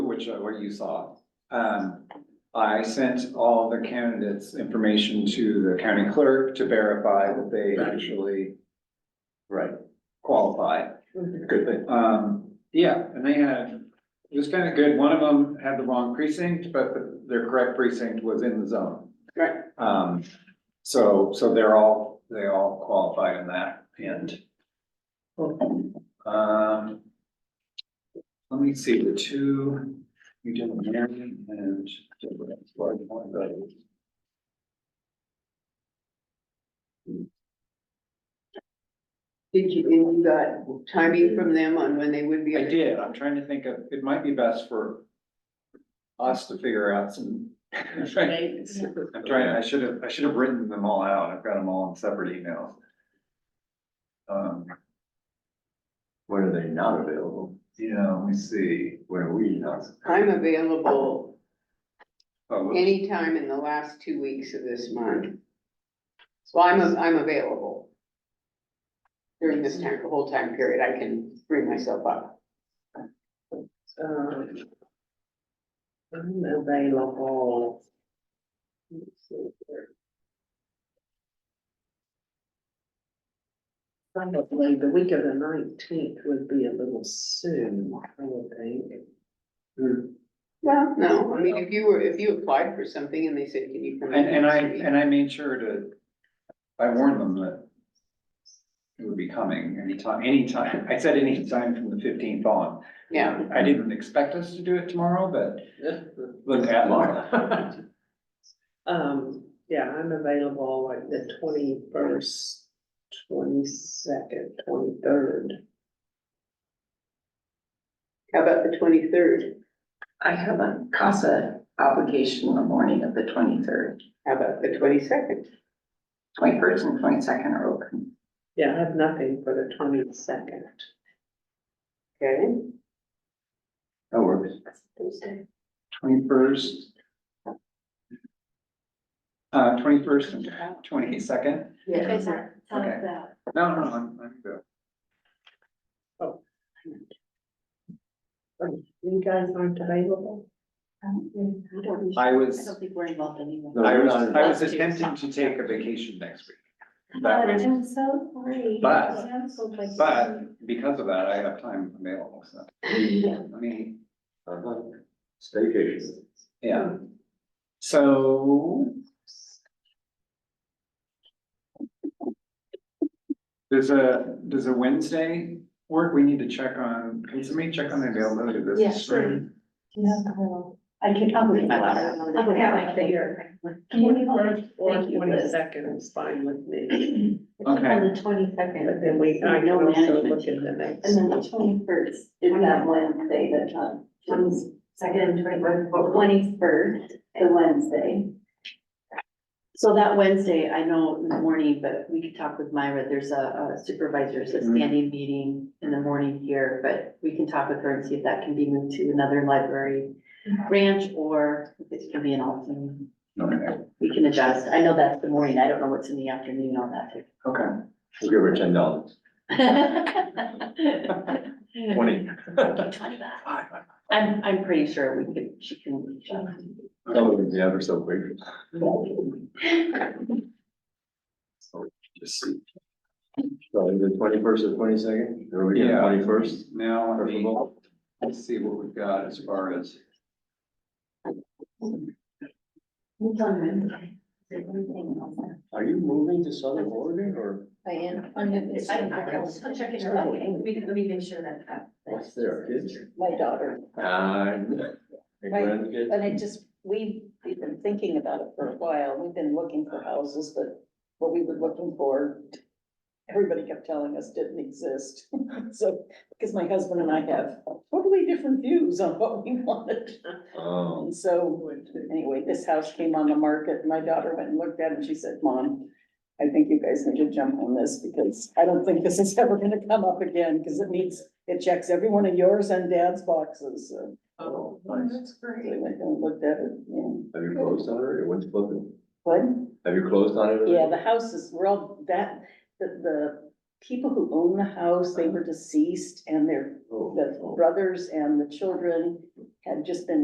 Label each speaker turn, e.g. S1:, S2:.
S1: which, uh, what you saw. Um, I sent all the candidates' information to the county clerk to verify that they actually
S2: Right.
S1: qualify.
S2: Good thing.
S1: Um, yeah, and they had, it was kind of good. One of them had the wrong precinct, but the- their correct precinct was in the zone.
S3: Right.
S1: Um, so, so they're all, they all qualified in that and. Um. Let me see, the two, you did Marion and. Deborah, large one, but-
S3: Did you, and you got timing from them on when they would be?
S1: I did, I'm trying to think of, it might be best for us to figure out some. I'm trying,
S3: Dates.
S1: I should have, I should have written them all out, I've got them all in separate emails. Um,
S2: When are they not available?
S1: yeah, let me see.
S2: When are we not?
S3: I'm available
S1: Oh, whoops.
S3: anytime in the last two weeks of this month. So I'm, I'm available. During this time, the whole time period, I can free myself up.
S4: Um, I'm available. Let's see here. Probably the week of the nineteenth would be a little soon, I would think.
S3: Well, no, I mean, if you were, if you applied for something and they said, can you come in?
S1: And, and I,
S3: next week?"
S1: and I made sure to, I warned them that it would be coming anytime, anytime. I said anytime from the fifteenth on.
S3: Yeah,
S1: I didn't expect us to do it tomorrow, but look at it.
S4: Um, yeah, I'm available like the twenty-first, twenty-second, twenty-third.
S3: how about the twenty-third?
S5: I have a CASA obligation the morning of the twenty-third,
S3: How about the twenty-second?
S5: twenty-first and twenty-second are open.
S4: Yeah, I have nothing for the twenty-second.
S3: Okay,
S2: That works.
S1: Twenty-first. Uh, twenty-first and twenty-second.
S3: yeah,
S1: tell us Okay. No, no, I'm, I'm good.
S4: You guys aren't available?
S1: I was,
S5: think we're involved anymore.
S1: I was, I was
S5: That's too
S1: attempting to
S5: soft.
S1: take a vacation next week. That
S6: But
S1: was,
S6: I'm so sorry.
S1: But-
S6: It sounds so like-
S1: but because of that, I have time available, so. I mean,
S2: Uh-huh. Staycation.
S1: yeah. So. There's a, there's a Wednesday work, we need to check on, can somebody check on the availability of this?
S6: Yeah, sure. Yeah, well, I can, I'll leave that out. I'll leave that figure.
S4: Or
S6: Thank you, Liz.
S4: twenty-second is fine with me,
S1: Okay.
S6: On the twenty
S4: but
S6: second.
S4: then we, I can
S6: No
S4: also
S6: management
S4: look at the
S6: And
S4: next.
S6: then the twenty first is that Wednesday, the time, twenty second, twenty first, twenty first, the Wednesday.
S7: So that Wednesday, I know in the morning, but we could talk with Myra, there's a a supervisor's a
S1: Mhm.
S7: standing meeting in the morning here, but we can talk with her and see if that can be moved to another library branch or if it's gonna be an alternate.
S1: Okay,
S7: We can adjust, I know that's the morning, I don't know what's in the afternoon on that.
S1: okay.
S2: We'll give her ten dollars.
S7: too.
S2: Twenty.
S7: Twenty bucks. I'm, I'm pretty sure we could, she can. adjust.
S2: That would be ever so quick.
S1: Just see.
S2: So the twenty-first or twenty-second, or we
S1: Yeah.
S2: got twenty-first?
S1: Now, let me, let's see what we've got as far as.
S6: It's on Wednesday. Is there anything else?
S2: Are you moving to Southern Oregon or
S6: I am. I'm gonna-
S7: I- I- I'll check it out. Let me, let me make sure that. that-
S2: what's there, kids?
S6: My daughter.
S2: Uh, your
S6: Right.
S2: grandkids?
S6: But I just, we've been thinking about it for a while, we've been looking for houses, but what we were looking for, everybody kept telling us didn't exist. So, because my husband and I have totally different views on what we wanted.
S2: Oh,
S6: And so, anyway, this house came on the market, my daughter went and looked at it, and she said, Mom, I think you guys need to jump on this, because I don't think this is ever gonna come up again, because it needs, it checks every one of yours and dad's boxes, so.
S2: oh, nice.
S6: They went and looked at it, yeah.
S2: Have you closed on it or when's closing?
S6: What?
S2: Have you closed on it?
S6: Yeah, the house is, we're all, that, the, the people who own the house, they were deceased and their,
S2: Oh.
S6: the brothers and the children had just been